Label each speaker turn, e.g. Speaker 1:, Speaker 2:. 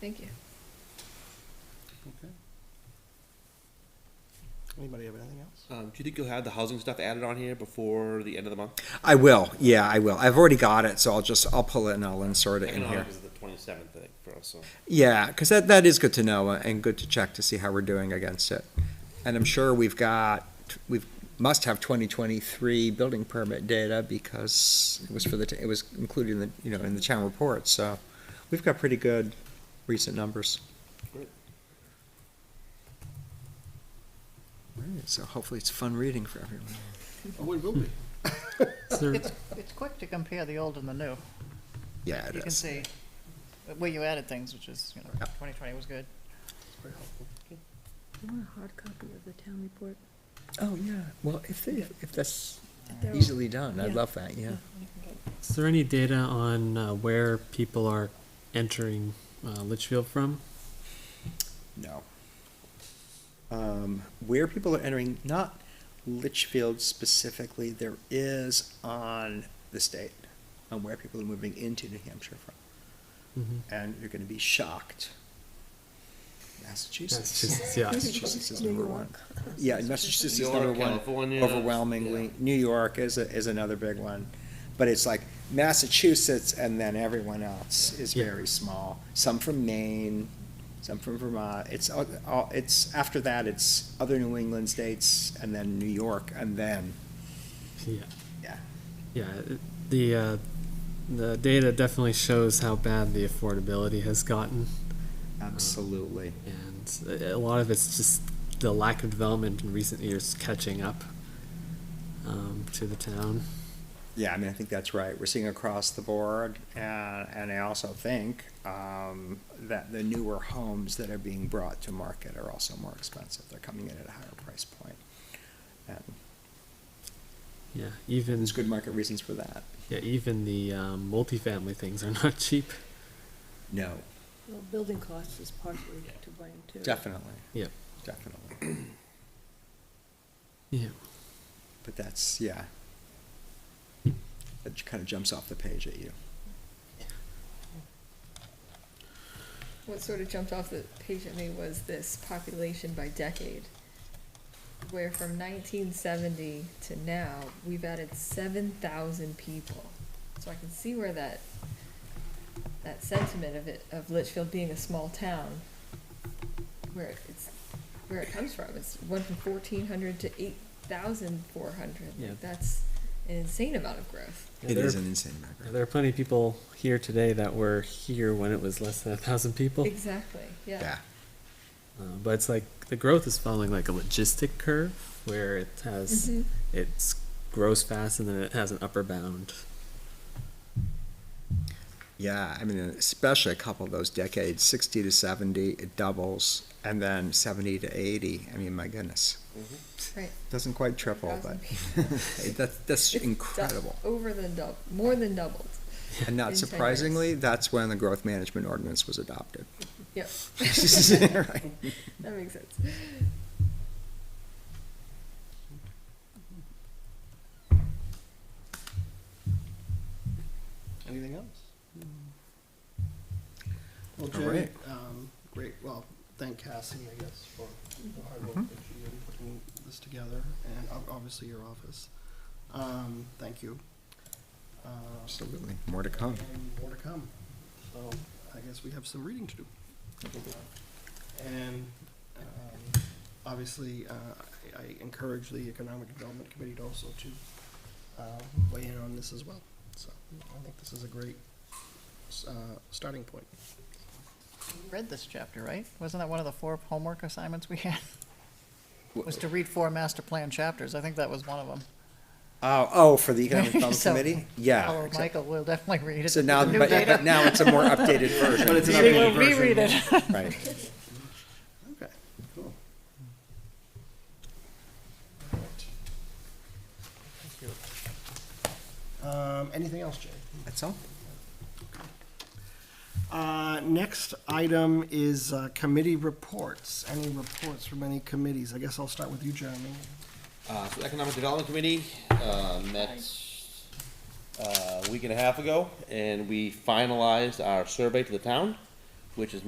Speaker 1: Thank you.
Speaker 2: Okay.
Speaker 3: Anybody have anything else?
Speaker 2: Um, do you think you'll have the housing stuff added on here before the end of the month?
Speaker 4: I will, yeah, I will. I've already got it, so I'll just, I'll pull it and I'll insert it in here.
Speaker 2: Economic is the twenty-seventh, I think, for us, so.
Speaker 4: Yeah, because that, that is good to know uh, and good to check to see how we're doing against it. And I'm sure we've got, we've, must have 2023 building permit data because it was for the, t- it was included in the, you know, in the town report, so we've got pretty good recent numbers.
Speaker 2: Great.
Speaker 4: All right, So hopefully it's fun reading for everyone.
Speaker 3: Oh, it will be.
Speaker 5: It's, it's quick to compare the old and the new.
Speaker 4: Yeah, it
Speaker 5: You can
Speaker 4: is.
Speaker 5: see where you added things, which is, you know,
Speaker 4: Yeah.
Speaker 5: twenty twenty was good.
Speaker 3: Very helpful.
Speaker 1: I want a hard copy of the town report.
Speaker 4: Oh, yeah, well, if, they- if that's
Speaker 1: If they're all-
Speaker 4: easily done, I'd
Speaker 1: Yeah.
Speaker 4: love that, yeah.
Speaker 6: Is there any data on uh, where people are entering uh, Litchfield from?
Speaker 4: No.
Speaker 3: Um, where people are entering, not Litchfield specifically, there is on the state, on where people are moving into New Hampshire from.
Speaker 6: Mhm.
Speaker 3: And you're gonna be shocked. Massachusetts.
Speaker 6: Massachusetts, yeah.
Speaker 4: Massachusetts is
Speaker 1: New
Speaker 4: number one.
Speaker 1: York.
Speaker 3: Yeah, Massachusetts is
Speaker 2: New
Speaker 3: number
Speaker 2: York,
Speaker 3: one
Speaker 2: California,
Speaker 3: overwhelmingly.
Speaker 2: yeah.
Speaker 3: New York is, a- is another big one. But it's like Massachusetts and then everyone else is
Speaker 6: Yeah.
Speaker 3: very small. Some from Maine, some from Vermont. It's, all- all- it's, after that, it's other New England states and then New York and then,
Speaker 6: Yeah,
Speaker 3: yeah.
Speaker 6: yeah. it- The uh, the data definitely shows how bad the affordability has gotten,
Speaker 2: Mm-hmm.
Speaker 3: Absolutely.
Speaker 6: and a a lot of it's just the lack of development in recent years catching up um, to the town.
Speaker 3: Yeah, I mean, I think that's right. We're seeing across the board, and, and I also think um, that the newer homes that are being brought to market are also more expensive. They're coming in at a higher price point. And
Speaker 6: Yeah, even
Speaker 3: there's good market reasons for that.
Speaker 6: yeah, even the um, multifamily things are not cheap.
Speaker 3: No,
Speaker 1: Well, building costs is partly to blame too.
Speaker 3: definitely,
Speaker 6: Yep.
Speaker 3: definitely.
Speaker 6: Yeah.
Speaker 3: But that's yeah. That kind of jumps off the page at you.
Speaker 1: What sort of jumped off the page at me was this population by decade, where from nineteen seventy to now, we've added seven thousand people. So I can see where that, that sentiment of it, of Litchfield being a small town, where it's, where it comes from, it's went from fourteen hundred to eight thousand four hundred.
Speaker 6: Yeah.
Speaker 1: That's an insane amount of growth.
Speaker 6: Yeah,
Speaker 4: It
Speaker 6: there
Speaker 4: is
Speaker 6: are-
Speaker 4: an insane
Speaker 6: Yeah,
Speaker 4: number.
Speaker 6: There are plenty of people here today that were here when it was less than a thousand people.
Speaker 1: Exactly, yeah.
Speaker 4: Yeah.
Speaker 6: Uh, but it's like the growth is following like a logistic curve where it has
Speaker 1: Mhm.
Speaker 6: it's grows fast and then it has an upper bound.
Speaker 4: Yeah, I mean, especially a couple of those decades, sixty to seventy, it doubles, and then seventy to eighty. I mean, my goodness,
Speaker 1: Right.
Speaker 4: doesn't quite triple, but
Speaker 1: 1,000
Speaker 4: Hey, that's that's
Speaker 1: It's dou-
Speaker 4: incredible.
Speaker 1: Over than double, more than doubled.
Speaker 4: And
Speaker 1: In ten
Speaker 4: not
Speaker 1: years.
Speaker 4: surprisingly, that's when the growth management ordinance was adopted.
Speaker 1: Yep,
Speaker 4: Right.
Speaker 1: that makes sense.
Speaker 3: Anything else?
Speaker 7: Well,
Speaker 4: Hmm. All
Speaker 7: Jerry,
Speaker 4: right.
Speaker 7: um, great, well, thank Cassidy, I guess, for the hard work
Speaker 4: Mm-hmm.
Speaker 7: that she did in putting this together, and ob- obviously your office. Um, thank you. Uh,
Speaker 4: Absolutely, more to come.
Speaker 7: And more to come, so I guess we have some reading to do. And, um, obviously, uh, I- I encourage the Economic Development Committee to also to, uh, weigh in on this as well. So, I think this is a great, s- uh, starting point.
Speaker 5: You Read this chapter, right? Wasn't that one of the four homework assignments we had? Was to read four master plan chapters. I think that was one of them.
Speaker 4: Oh, oh, for the economic development
Speaker 5: So-
Speaker 4: committee, yeah.
Speaker 5: Hello,
Speaker 4: exactly.
Speaker 5: Michael, we'll definitely read it.
Speaker 4: So now,
Speaker 5: The new
Speaker 4: but,
Speaker 5: data.
Speaker 4: but now it's a more updated version.
Speaker 2: But it's an
Speaker 5: We will
Speaker 2: updated version.
Speaker 5: reread it.
Speaker 4: Right.
Speaker 7: Okay, cool. Thank you. Um, anything else, Jay?
Speaker 4: That's all.
Speaker 7: Uh, next item is uh, committee reports. Any reports from any committees? I guess I'll start with you, Jeremy.
Speaker 2: Uh, so Economic Development Committee, uh, met, uh, a week and a half ago, and we finalized our survey to the town, which is now